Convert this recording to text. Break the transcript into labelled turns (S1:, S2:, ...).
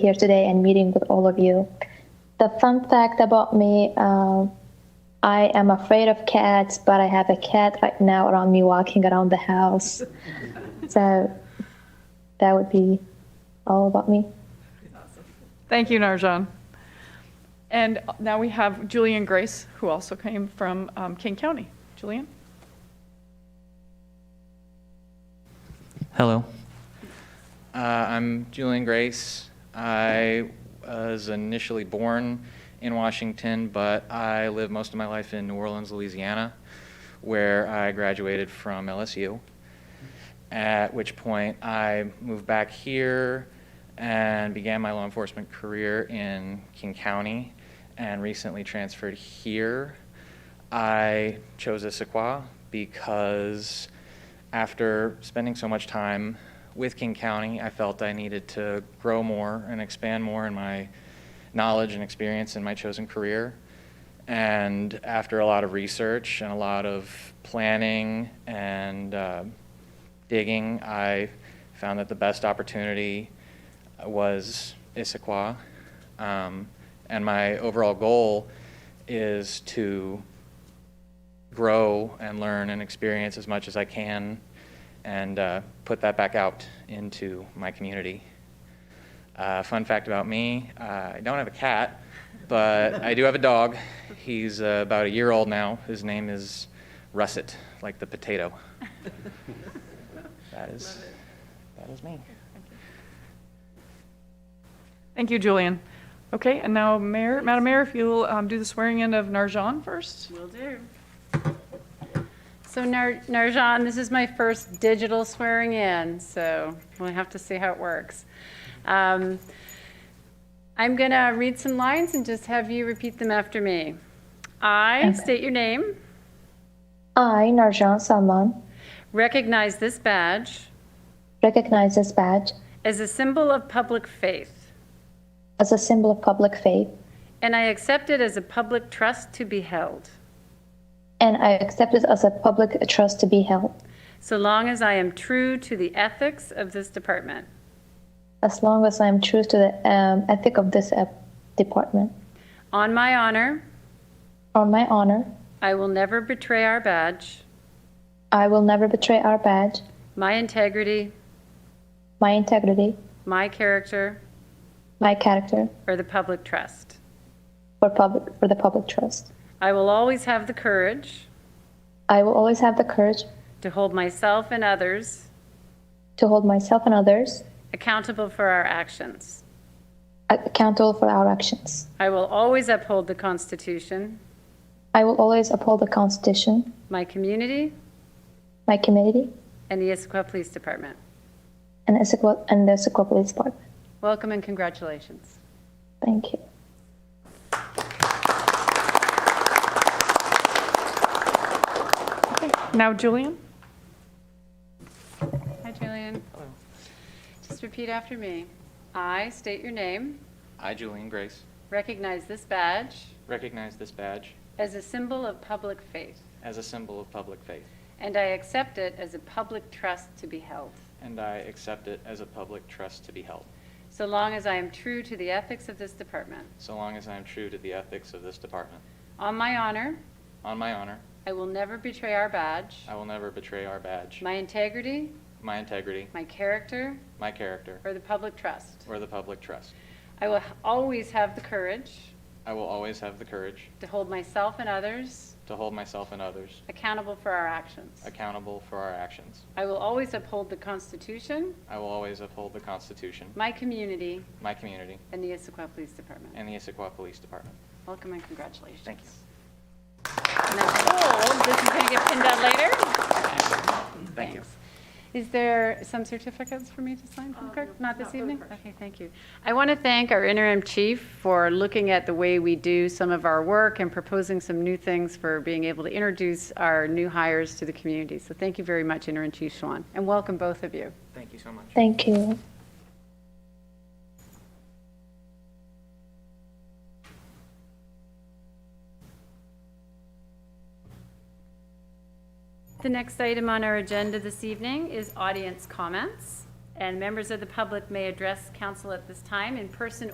S1: here today and meeting with all of you. The fun fact about me uh, I am afraid of cats, but I have a cat right now around me walking around the house. so that would be all about me.
S2: Thank you, Narjan. And now we have Julian Grace, who also came from um, King County. Julian?
S3: Hello. Uh, I'm Julian Grace. I was initially born in Washington, but I lived most of my life in New Orleans, Louisiana, where I graduated from LSU. At which point, I moved back here and began my law enforcement career in King County and recently transferred here. I chose Issaquah because after spending so much time with King County, I felt I needed to grow more and expand more in my knowledge and experience in my chosen career. And after a lot of research and a lot of planning and uh, digging, I found that the best opportunity was Issaquah. Um, and my overall goal is to grow and learn and experience as much as I can and uh, put that back out into my community. Uh, fun fact about me uh, I don't have a cat, but I do have a dog. He's uh, about a year old now. His name is Russet, like the potato. that is that is me.
S2: Thank you, Julian. Okay, and now, Mayor, Madam Mayor, if you'll um, do the swearing in of Narjan first.
S4: Will do. So Nar- Narjan, this is my first digital swearing in, so we'll have to see how it works. Um, I'm going to read some lines and just have you repeat them after me. I state your name,
S1: I, Narjan Salman,
S4: recognize this badge
S1: recognize this badge
S4: as a symbol of public faith,
S1: as a symbol of public faith,
S4: and I accept it as a public trust to be held,
S1: and I accept it as a public trust to be held,
S4: so long as I am true to the ethics of this department.
S1: as long as I am true to the um, ethic of this uh, department.
S4: On my honor,
S1: On my honor,
S4: I will never betray our badge.
S1: I will never betray our badge,
S4: my integrity,
S1: my integrity,
S4: my character,
S1: my character,
S4: or the public trust.
S1: or public for the public trust.
S4: I will always have the courage
S1: I will always have the courage
S4: to hold myself and others
S1: to hold myself and others
S4: accountable for our actions.
S1: accountable for our actions.
S4: I will always uphold the Constitution,
S1: I will always uphold the Constitution,
S4: my community,
S1: my community,
S4: and the Issaquah Police Department.
S1: and, Issaquah, and the Issaquah Police Department.
S4: Welcome and congratulations.
S1: Thank you.
S2: Now, Julian?
S4: Hi, Julian. Hello. Just repeat after me. I state your name,
S3: I, Julian Grace,
S4: recognize this badge
S3: recognize this badge
S4: as a symbol of public faith,
S3: as a symbol of public faith,
S4: and I accept it as a public trust to be held.
S3: and I accept it as a public trust to be held,
S4: So long as I am true to the ethics of this department.
S3: so long as I am true to the ethics of this department.
S4: On my honor,
S3: On my honor,
S4: I will never betray our badge,
S3: I will never betray our badge,
S4: my integrity,
S3: my integrity,
S4: my character,
S3: my character,
S4: or the public trust.
S3: or the public trust.
S4: I will always have the courage
S3: I will always have the courage
S4: to hold myself and others
S3: to hold myself and others
S4: accountable for our actions.
S3: accountable for our actions.
S4: I will always uphold the Constitution,
S3: I will always uphold the Constitution,
S4: my community,
S3: my community,
S4: and the Issaquah Police Department.
S3: and the Issaquah Police Department.
S4: Welcome and congratulations.
S3: Thank you.
S4: And that's old. This is going to get pinned out later.
S3: Thank you.
S4: Thanks. Is there some certificates for me to sign from the clerk? Uh, Not this evening? Okay, thank you. I want to thank our interim chief for looking at the way we do some of our work and proposing some new things for being able to introduce our new hires to the community. So thank you very much, Interim Chief Schwan, and welcome both of you.
S3: Thank you so much.
S1: Thank you.
S4: The next item on our agenda this evening is audience comments. and members of the public may address council at this time in person